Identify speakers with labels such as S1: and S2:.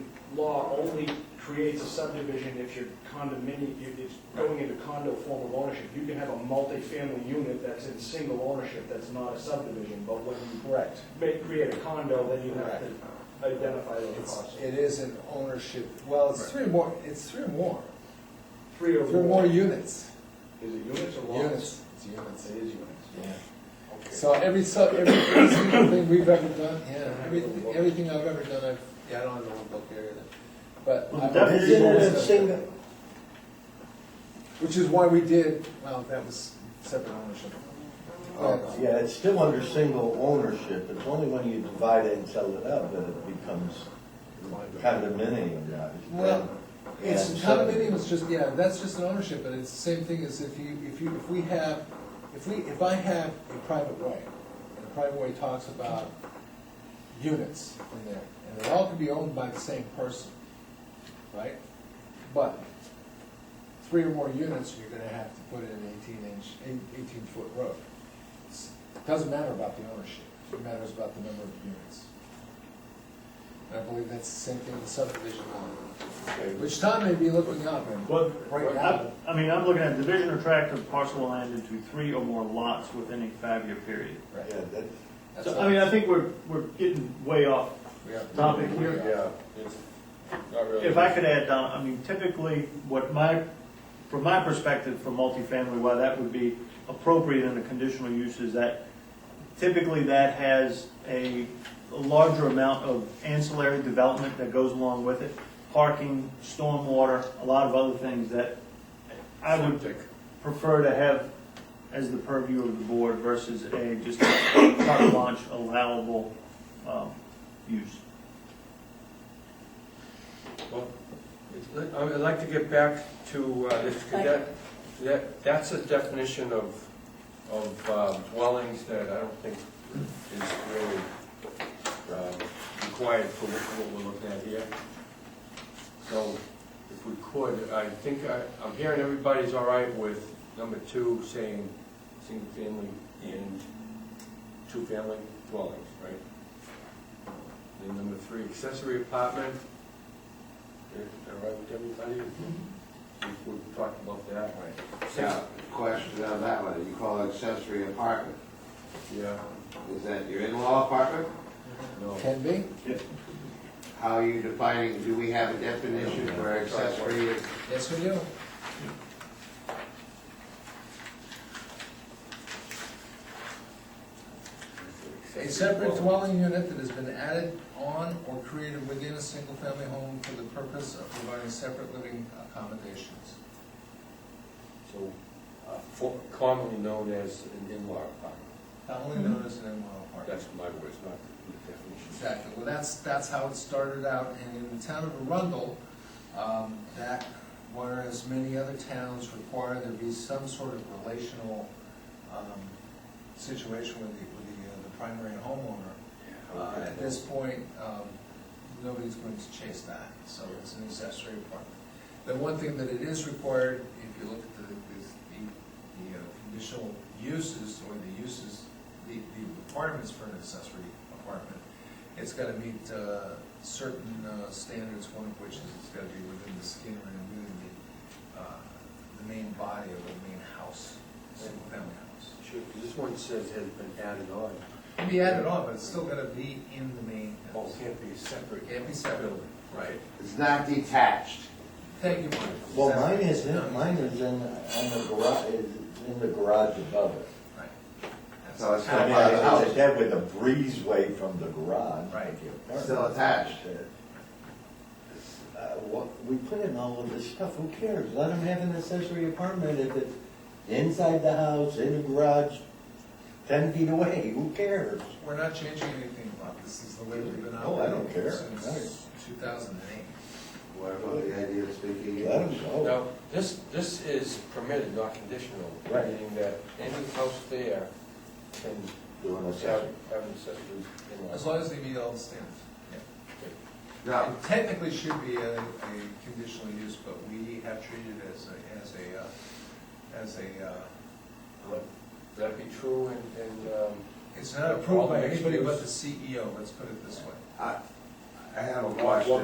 S1: law only creates a subdivision if you're condominium, if it's going into condo form of ownership. You can have a multifamily unit that's in single ownership, that's not a subdivision, but when you
S2: Correct.
S1: make, create a condo, then you have to identify those
S2: It's,
S1: parcels.
S2: it is an ownership, well, it's three more, it's three or more,
S1: Three or
S2: three or more units.
S1: Is it units or lots?
S2: Units, it's
S1: It
S2: units.
S1: is units.
S2: Yeah.
S1: Okay.
S2: So every, so every every single thing we've ever done, yeah, everything, everything I've ever done, I've, yeah, I don't have the whole book here either. But.
S3: Well,
S2: I've-
S3: the definition of a single,
S2: Which is why we did, well, that was separate ownership.
S3: oh, yeah, it's still under single ownership, it's only when you divide it and sell it out that it becomes condominium, yeah.
S2: Well, It's
S3: And so-
S2: condominium is just, yeah, that's just an ownership, but it's the same thing as if you, if you, if we have, if we, if I have a private way, and the private way talks about units in there, and they all can be owned by the same person, right? But three or more units, you're gonna have to put in an eighteen inch, eighteen foot road. It's- Doesn't matter about the ownership, it matters about the number of units. And I believe that's the same thing with subdivision law. Which Tom may be looking up and.
S4: Well,
S2: Right
S4: I,
S2: now.
S4: I mean, I'm looking at division or tract of parcel land into three or more lots within a five-year period.
S3: Yeah, that's,
S2: That's
S4: So,
S2: all.
S4: I mean, I think we're, we're getting way off
S2: We have-
S4: topic here.
S5: Yeah, it's not really.
S4: If I could add, Don, I mean, typically, what my, from my perspective, for multifamily, why that would be appropriate in a conditional use is that typically that has a a larger amount of ancillary development that goes along with it, parking, stormwater, a lot of other things that I would prefer to have as the purview of the board versus a just carte blanche allowable um, use.
S5: Well, it's- I would like to get back to, uh, this, that, that, that's a definition of, of uh, dwellings that I don't think is really um, required for what what we're looking at here. So, if we could, I think I, I'm hearing everybody's all right with number two saying single family and two family dwellings, right? And number three, accessory apartment. Is that right with everybody? We- We've talked about that.
S6: Yeah, question on that one, you call it accessory apartment,
S5: Yeah,
S6: is that your in-law apartment?
S5: no.
S2: Can be,
S6: How are you defining, do we have a definition for accessory?
S2: yes we do. A separate dwelling unit that has been added on or created within a single-family home for the purpose of providing separate living accommodations.
S5: So, uh, for- commonly known as an in-law apartment.
S2: Only known as an in-law apartment.
S5: That's my words, not the definition.
S2: Exactly, well, that's, that's how it started out, and in the town of Arundel, um, that, whereas many other towns require there be some sort of relational, um, situation with the, with the, uh, the primary homeowner, uh, at this point, um, nobody's going to chase that, so it's an accessory apartment. The one thing that it is required, if you look at the, is the, the uh, conditional uses, or the uses, the, the requirements for an accessory apartment, it's gotta meet, uh, certain, uh, standards, one of which is it's gotta be within the skin and within the, uh, the main body of the main house, single-family house.
S5: Sure, 'cause this one says has been added on.
S2: It can be added on, but it's still gotta be in the main
S5: Oh,
S2: house.
S5: can't be separate.
S2: Can't be separate.
S5: Right.
S6: It's not detached.
S2: Thank you, Mike.
S3: Well, mine is, in- mine is in, on the garage, is in the garage above it.
S2: Right. That's-
S6: So it's
S3: I
S6: not
S3: mean,
S6: part of the
S3: it's
S6: house,
S3: a dead with a breezeway from the garage.
S2: Right.
S6: It's still attached.
S3: Uh, What, we put in all of this stuff, who cares? Let them have an accessory apartment if it's inside the house, in the garage, ten feet away, who cares?
S2: We're not changing anything about this, is the way we've been
S3: No, Oh, I
S2: operating.
S3: don't care.
S2: Since two thousand and eight.
S6: whatever the idea of speaking
S3: Let them
S6: English.
S3: go.
S5: Now, this, this is permitted, not conditional,
S3: Right.
S5: meaning that any house there can
S3: Do an
S5: have,
S3: accessory.
S5: have an accessory in-law.
S2: As long as they meet all the standards.
S6: Now,
S2: It Technically should be a, a conditional use, but we have treated it as a, as a, uh, as a, uh,
S5: Would that be true in, in, um,
S2: it's not approved by anybody but the CEO, let's E put it this way.
S6: I, I have a
S5: Well,
S6: question.